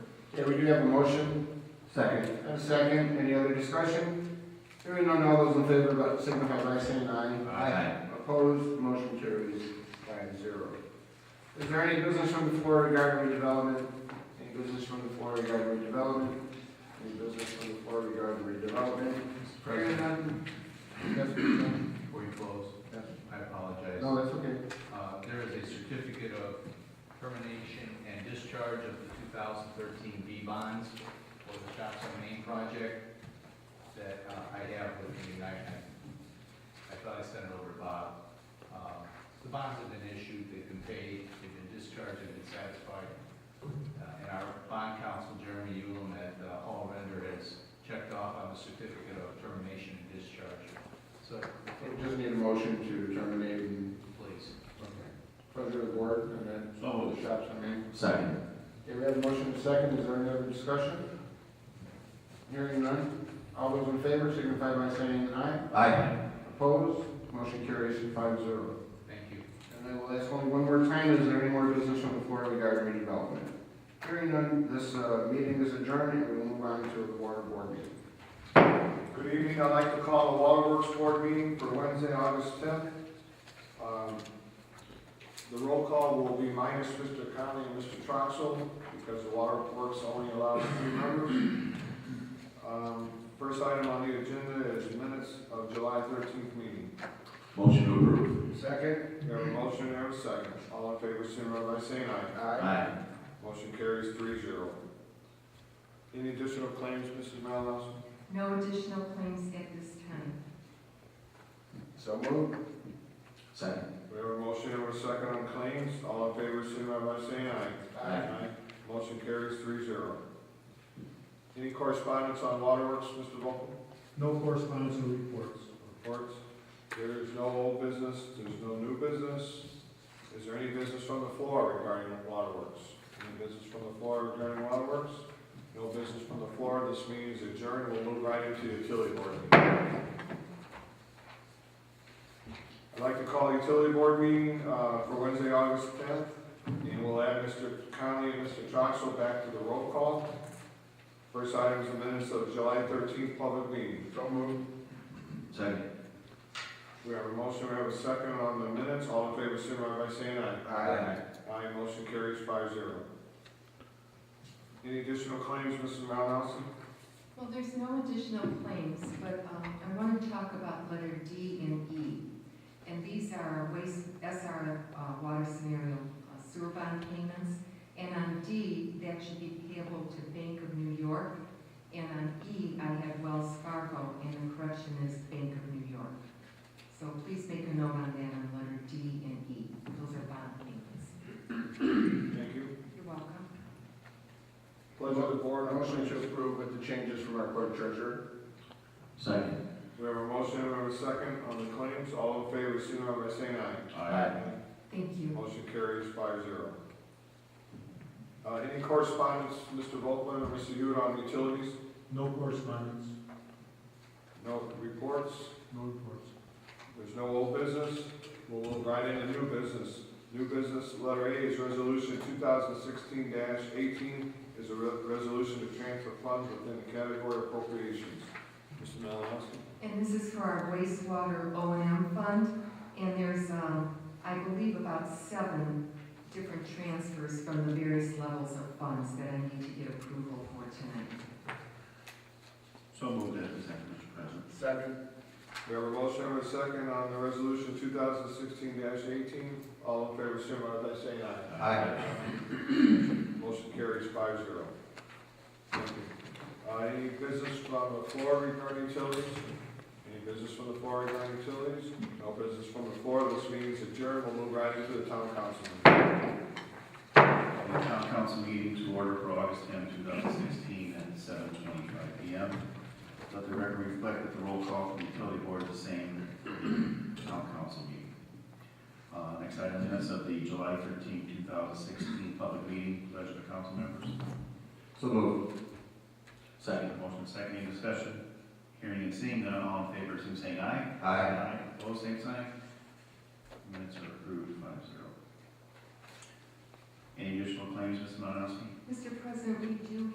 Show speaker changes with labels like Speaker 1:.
Speaker 1: Okay, we do have a motion
Speaker 2: Second.
Speaker 1: and a second. Any other discussion? Hearing none, all those in favor, but signify by saying aye.
Speaker 2: Aye.
Speaker 1: Opposed, motion carries five zero. Is there any business from the floor regarding redevelopment? Any business from the floor regarding redevelopment? Any business from the floor regarding redevelopment?
Speaker 2: Mr. President,
Speaker 1: Hearing none? Yes, please, ma'am.
Speaker 2: before you close,
Speaker 1: Yes.
Speaker 2: I apologize.
Speaker 1: No, that's okay.
Speaker 2: Uh, There is a certificate of termination and discharge of the 2013 B bonds for the Shops on Main project that uh, I have with me. I- I I thought I sent it over to Bob. Um, The bonds have been issued, they've been paid, they've been discharged, they've been satisfied. Uh, And our bond counsel, Jeremy Ulam at uh, Hall Render, has checked off on the certificate of termination and discharge. So,
Speaker 1: We just need a motion to terminate and
Speaker 2: please.
Speaker 1: President of the board and then
Speaker 3: So
Speaker 1: the shops, I mean.
Speaker 3: Second.
Speaker 1: Okay, we have a motion to second, is there any other discussion? Hearing none, all those in favor signify by saying aye.
Speaker 3: Aye.
Speaker 1: Opposed, motion carries five zero.
Speaker 2: Thank you.
Speaker 1: And I will ask only one more time, is there any more business on the floor regarding redevelopment? Hearing none, this, uh, meeting is adjourned, and we will move on to the water board meeting. Good evening, I'd like to call the Waterworks Board meeting for Wednesday, August tenth. Um, The roll call will be minus Mr. Conley and Mr. Troxel, because the Waterworks only allows three members. Um, First item on the agenda is minutes of July thirteenth meeting.
Speaker 3: Motion to approve.
Speaker 1: Second, we have a motion and we have a second. All in favor, signify by saying aye.
Speaker 3: Aye.
Speaker 1: Motion carries three zero. Any additional claims, Mrs. Malinowski?
Speaker 4: No additional claims at this time.
Speaker 1: So moved.
Speaker 3: Second.
Speaker 1: We have a motion and a second on claims. All in favor, signify by saying aye.
Speaker 3: Aye.
Speaker 1: Motion carries three zero. Any correspondence on waterworks, Mr. Volkel?
Speaker 5: No correspondence or reports.
Speaker 1: Reports? There is no old business, there's no new business. Is there any business from the floor regarding waterworks? Any business from the floor regarding waterworks? No business from the floor, this meeting is adjourned, we'll move right into the utility board meeting. I'd like to call the utility board meeting, uh, for Wednesday, August tenth, and we'll add Mr. Conley and Mr. Troxel back to the roll call. First item is the minutes of July thirteenth public meeting. So moved.
Speaker 3: Second.
Speaker 1: We have a motion, we have a second on the minutes, all in favor, signify by saying aye. Aye, motion carries five zero. Any additional claims, Mrs. Malinowski?
Speaker 4: Well, there's no additional claims, but um, I want to talk about letter D and E. And these are our waste, SR uh, water scenario uh, sewer bond payments. And on D, that should be payable to Bank of New York. And on E, I have Wells Fargo, and the correction is Bank of New York. So please make a note on that on letter D and E. Those are bond payments.
Speaker 1: Thank you.
Speaker 4: You're welcome.
Speaker 1: Pleasure of the board. Motion to approve with the changes from our court treasurer.
Speaker 3: Second.
Speaker 1: We have a motion, we have a second on the claims, all in favor, signify by saying aye.
Speaker 4: Thank you.
Speaker 1: Motion carries five zero. Uh, any correspondence, Mr. Volkman or Mr. Hewitt on utilities?
Speaker 5: No correspondence,
Speaker 1: No reports?
Speaker 5: no reports.
Speaker 1: There's no old business, we'll move right into new business. New business, letter A is resolution two thousand sixteen eighteen, is a re- resolution to transfer funds within the category of appropriations. Mr. Malinowski?
Speaker 4: And this is for our wastewater O and M fund, and there's, um, I believe about seven different transfers from the various levels of funds that I need to get approval for tonight.
Speaker 3: So moved as a second, Mr. President.
Speaker 1: Second. We have a motion and a second on the resolution two thousand sixteen eighteen, all in favor, signify by saying aye.
Speaker 3: Aye.
Speaker 1: Motion carries five zero. Thank you. Uh, any business from the floor regarding utilities? Any business from the floor regarding utilities? No business from the floor, this meeting is adjourned, we'll move right into the town council. meeting.
Speaker 3: The town council meeting to order for August 10, 2016 at 7:25 PM. Let the record reflect that the roll call from the utility board is the same town council meeting. Uh, Next item minutes of the July 13, 2016 public meeting, pleasure of council members. So moved. Second. Motion second, any discussion? Hearing and seeing none, all in favor, so saying aye. Aye. Opposed, same sign. Minutes are approved, five zero. Any additional claims, Mr. Malinowski?
Speaker 4: Mr. President, we do